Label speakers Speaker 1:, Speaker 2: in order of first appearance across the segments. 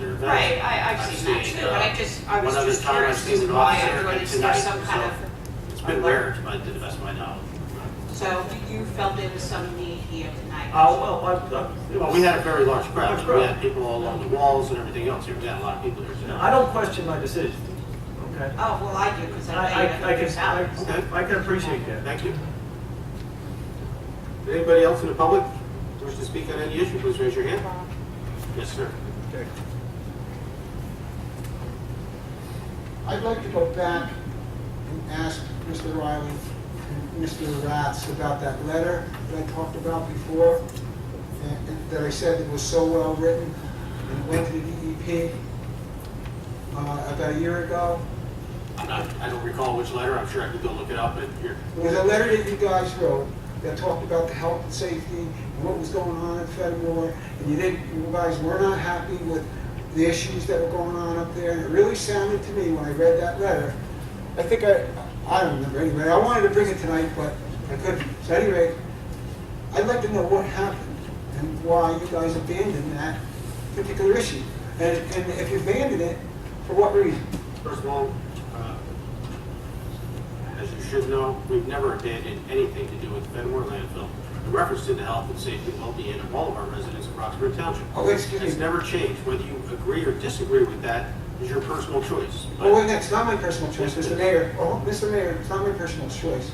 Speaker 1: Right, I, I've
Speaker 2: I've
Speaker 1: seen that
Speaker 2: seen,
Speaker 1: too,
Speaker 2: uh,
Speaker 1: but I just, I was
Speaker 2: one other
Speaker 1: just
Speaker 2: time I've
Speaker 1: curious as
Speaker 2: seen
Speaker 1: to
Speaker 2: an
Speaker 1: why
Speaker 2: officer
Speaker 1: everyone is there
Speaker 2: tonight,
Speaker 1: some kind of,
Speaker 2: It's been rare, to my, to the best of my knowledge.
Speaker 1: so you felt there was some need here tonight?
Speaker 2: Oh, well, I- I- well, we had a very large crowd,
Speaker 3: Large
Speaker 2: we
Speaker 3: crowd.
Speaker 2: had people all along the walls and everything else, we had a lot of people there.
Speaker 3: I don't question my decision, okay?
Speaker 1: Oh, well, I do, because
Speaker 3: I,
Speaker 1: I
Speaker 3: I,
Speaker 1: paid
Speaker 3: I
Speaker 1: hundred
Speaker 3: can,
Speaker 1: dollars.
Speaker 3: I- I can appreciate that.
Speaker 2: Thank you. Anybody else in the public wish to speak on any issue, please raise your hand. Yes, sir.
Speaker 3: Okay.
Speaker 4: I'd like to go back and ask Mr. Riley and Mr. Ratz about that letter that I talked about before, and- and that I said it was so well written, and went to the DEP uh, about a year ago.
Speaker 2: I'm not, I don't recall which letter, I'm sure I could go look it up, but here,
Speaker 4: It was a letter that you guys wrote that talked about the health and safety and what was going on at Fenimore, and you didn't, you guys were not happy with the issues that were going on up there, and it really sounded to me when I read that letter, I think I, I don't remember anyway, I wanted to bring it tonight, but I couldn't. So anyway, I'd like to know what happened and why you guys abandoned that particular issue. And, and if you abandoned it, for what reason?
Speaker 2: First of all, uh, as you should know, we've never abandoned anything to do with Fenimore landfill in reference to the health and safety and well-being of all of our residents of Roxbury Township.
Speaker 4: Oh, excuse me.
Speaker 2: It's never changed, whether you agree or disagree with that is your personal choice. but-
Speaker 4: Well, Oh, wait, that's not my personal choice, Mr. Mayor. Oh, Mr. Mayor, it's not my personal choice.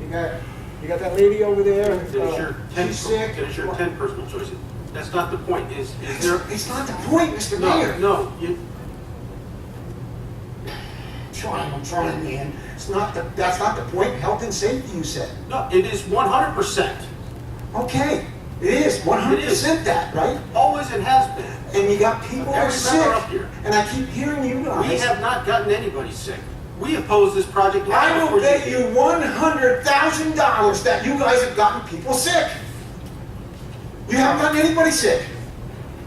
Speaker 4: You got, you got that lady over there.
Speaker 2: That is your
Speaker 4: uh,
Speaker 2: ten,
Speaker 4: She's sick.
Speaker 2: that is your ten personal choices. That's not the point, is, is there?
Speaker 4: It's not the point, Mr.
Speaker 2: No,
Speaker 4: Mayor.
Speaker 2: no, you,
Speaker 4: I'm trying, I'm trying, man. It's not the, that's not the point. Health and safety, you said.
Speaker 2: no, it is one hundred percent,
Speaker 4: Okay, it is one hundred percent that, right?
Speaker 2: always it has been.
Speaker 4: And you got people who are
Speaker 2: Every member
Speaker 4: sick.
Speaker 2: up here.
Speaker 4: And I keep hearing you
Speaker 2: We
Speaker 4: guys.
Speaker 2: have not gotten anybody sick. We opposed this project. long
Speaker 4: I
Speaker 2: before
Speaker 4: will bet
Speaker 2: did.
Speaker 4: you one hundred thousand dollars that you guys have gotten people sick. You haven't gotten anybody sick.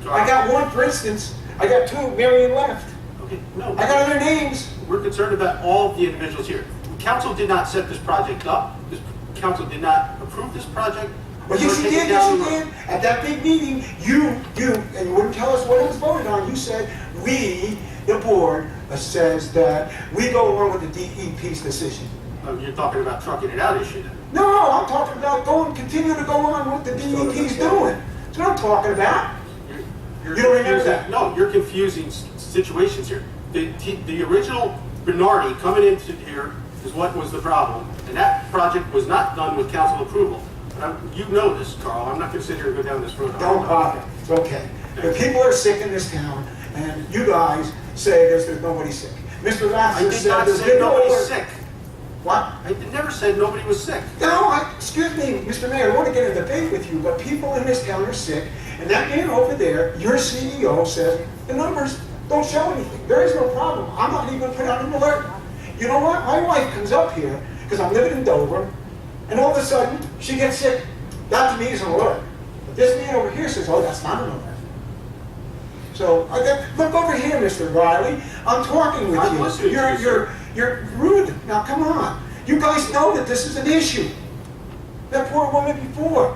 Speaker 4: I got one, for instance, I got two, Marion left.
Speaker 2: Okay, no,
Speaker 4: I got other names.
Speaker 2: we're concerned about all the individuals here. Council did not set this project up. This council did not approve this project.
Speaker 4: Well, yes,
Speaker 2: We're
Speaker 4: you
Speaker 2: taking
Speaker 4: did,
Speaker 2: down
Speaker 4: yes,
Speaker 2: the
Speaker 4: you
Speaker 2: road.
Speaker 4: did. At that big meeting, you, you, and you wouldn't tell us what it was voted on. You said, we, the board, uh, says that we go along with the DEP's decision.
Speaker 2: Oh, You're talking about trucking it out issue then.
Speaker 4: No, I'm talking about going, continue to go on with the DEP's doing. That's what I'm talking about.
Speaker 2: You're-
Speaker 4: You don't remember
Speaker 2: confusing-
Speaker 4: that?
Speaker 2: No, you're confusing s- situations here. The, t- the original Bernardi coming into here is what was the problem, and that project was not done with council approval. And I'm- You know this, Carl, I'm not gonna sit here and go down this road.
Speaker 4: Don't bother, it's okay. The people are sick in this town, and you guys say there's, there's nobody sick. Mr.
Speaker 2: I
Speaker 4: Lasser
Speaker 2: did
Speaker 4: said
Speaker 2: not
Speaker 4: there's
Speaker 2: say
Speaker 4: been no
Speaker 2: nobody's
Speaker 4: alert.
Speaker 2: sick.
Speaker 4: What?
Speaker 2: I did- never said nobody was sick.
Speaker 4: No, I, excuse me, Mr. Mayor, I want to get in a debate with you, but people in this town are sick, and that man over there, your CEO, says the numbers don't show anything. There is no problem. I'm not even gonna put out an alert. You know what? My wife comes up here, because I'm living in Dover, and all of a sudden, she gets sick. That to me is an alert. But this man over here says, oh, that's not an alert. So, I got- look over here, Mr. Riley, I'm talking with you.
Speaker 2: I'm listening to
Speaker 4: You're,
Speaker 2: you,
Speaker 4: you're, you're rude. Now, come on. You guys know that this is an issue. That poor woman before.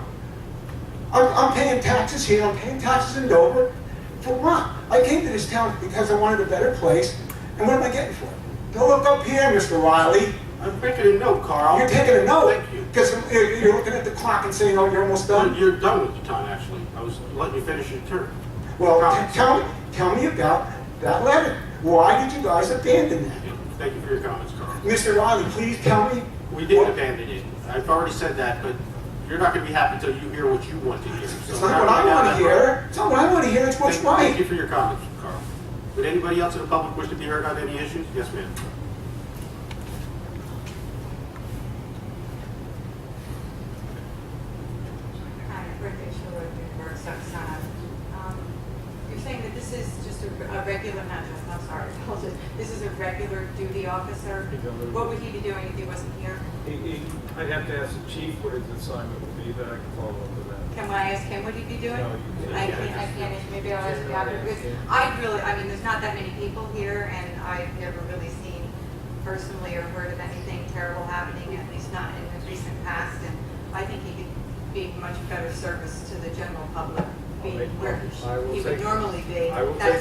Speaker 4: I'm, I'm paying taxes here, I'm paying taxes in Dover. For what? I came to this town because I wanted a better place, and what am I getting for it? Don't look up here, Mr. Riley.
Speaker 2: I'm making a note, Carl.
Speaker 4: You're taking a note,
Speaker 2: Thank you.
Speaker 4: because you're you're looking at the clock and saying, oh, you're almost
Speaker 2: Well,
Speaker 4: done.
Speaker 2: You're done with your time, actually. I was letting you finish your turn.
Speaker 4: Well,
Speaker 2: Comments.
Speaker 4: t- tell, tell me about that letter. Why did you guys abandon that?
Speaker 2: Yeah, Thank you for your comments, Carl.
Speaker 4: Mr. Riley, please tell me.
Speaker 2: We did
Speaker 4: what-
Speaker 2: abandon it. I've already said that, but you're not gonna be happy until you hear what you want to hear. So
Speaker 4: It's not what I
Speaker 2: now
Speaker 4: want to
Speaker 2: that-
Speaker 4: hear. It's not what I want to hear, it's what's
Speaker 2: Thank- Thank you
Speaker 4: right.
Speaker 2: for your comments, Carl. Would anybody else in the public wish to be heard on any issues? Yes, ma'am.
Speaker 5: Hi, Brenda Sherwood, Newburgh, Soxon. Um, You're saying that this is just a a regular, not just, I'm sorry, apologies. this is a regular duty officer?
Speaker 6: Regular.
Speaker 5: What would he be doing if he wasn't here?
Speaker 6: He- he- I'd have to ask the chief what his assignment would be, but I can follow up with that.
Speaker 5: Can I ask him what he'd be doing?
Speaker 6: No, you
Speaker 5: I
Speaker 6: can't.
Speaker 5: can't, I can't, maybe I'll ask the auditor, because I really, I mean, there's not that many people here, and I've never really seen personally or heard of anything terrible happening, at least not in the recent past, and I think he could be much better service to the general public, being
Speaker 6: make-
Speaker 5: where
Speaker 6: I will
Speaker 5: he would
Speaker 6: take-
Speaker 5: normally be.
Speaker 6: I will
Speaker 5: That's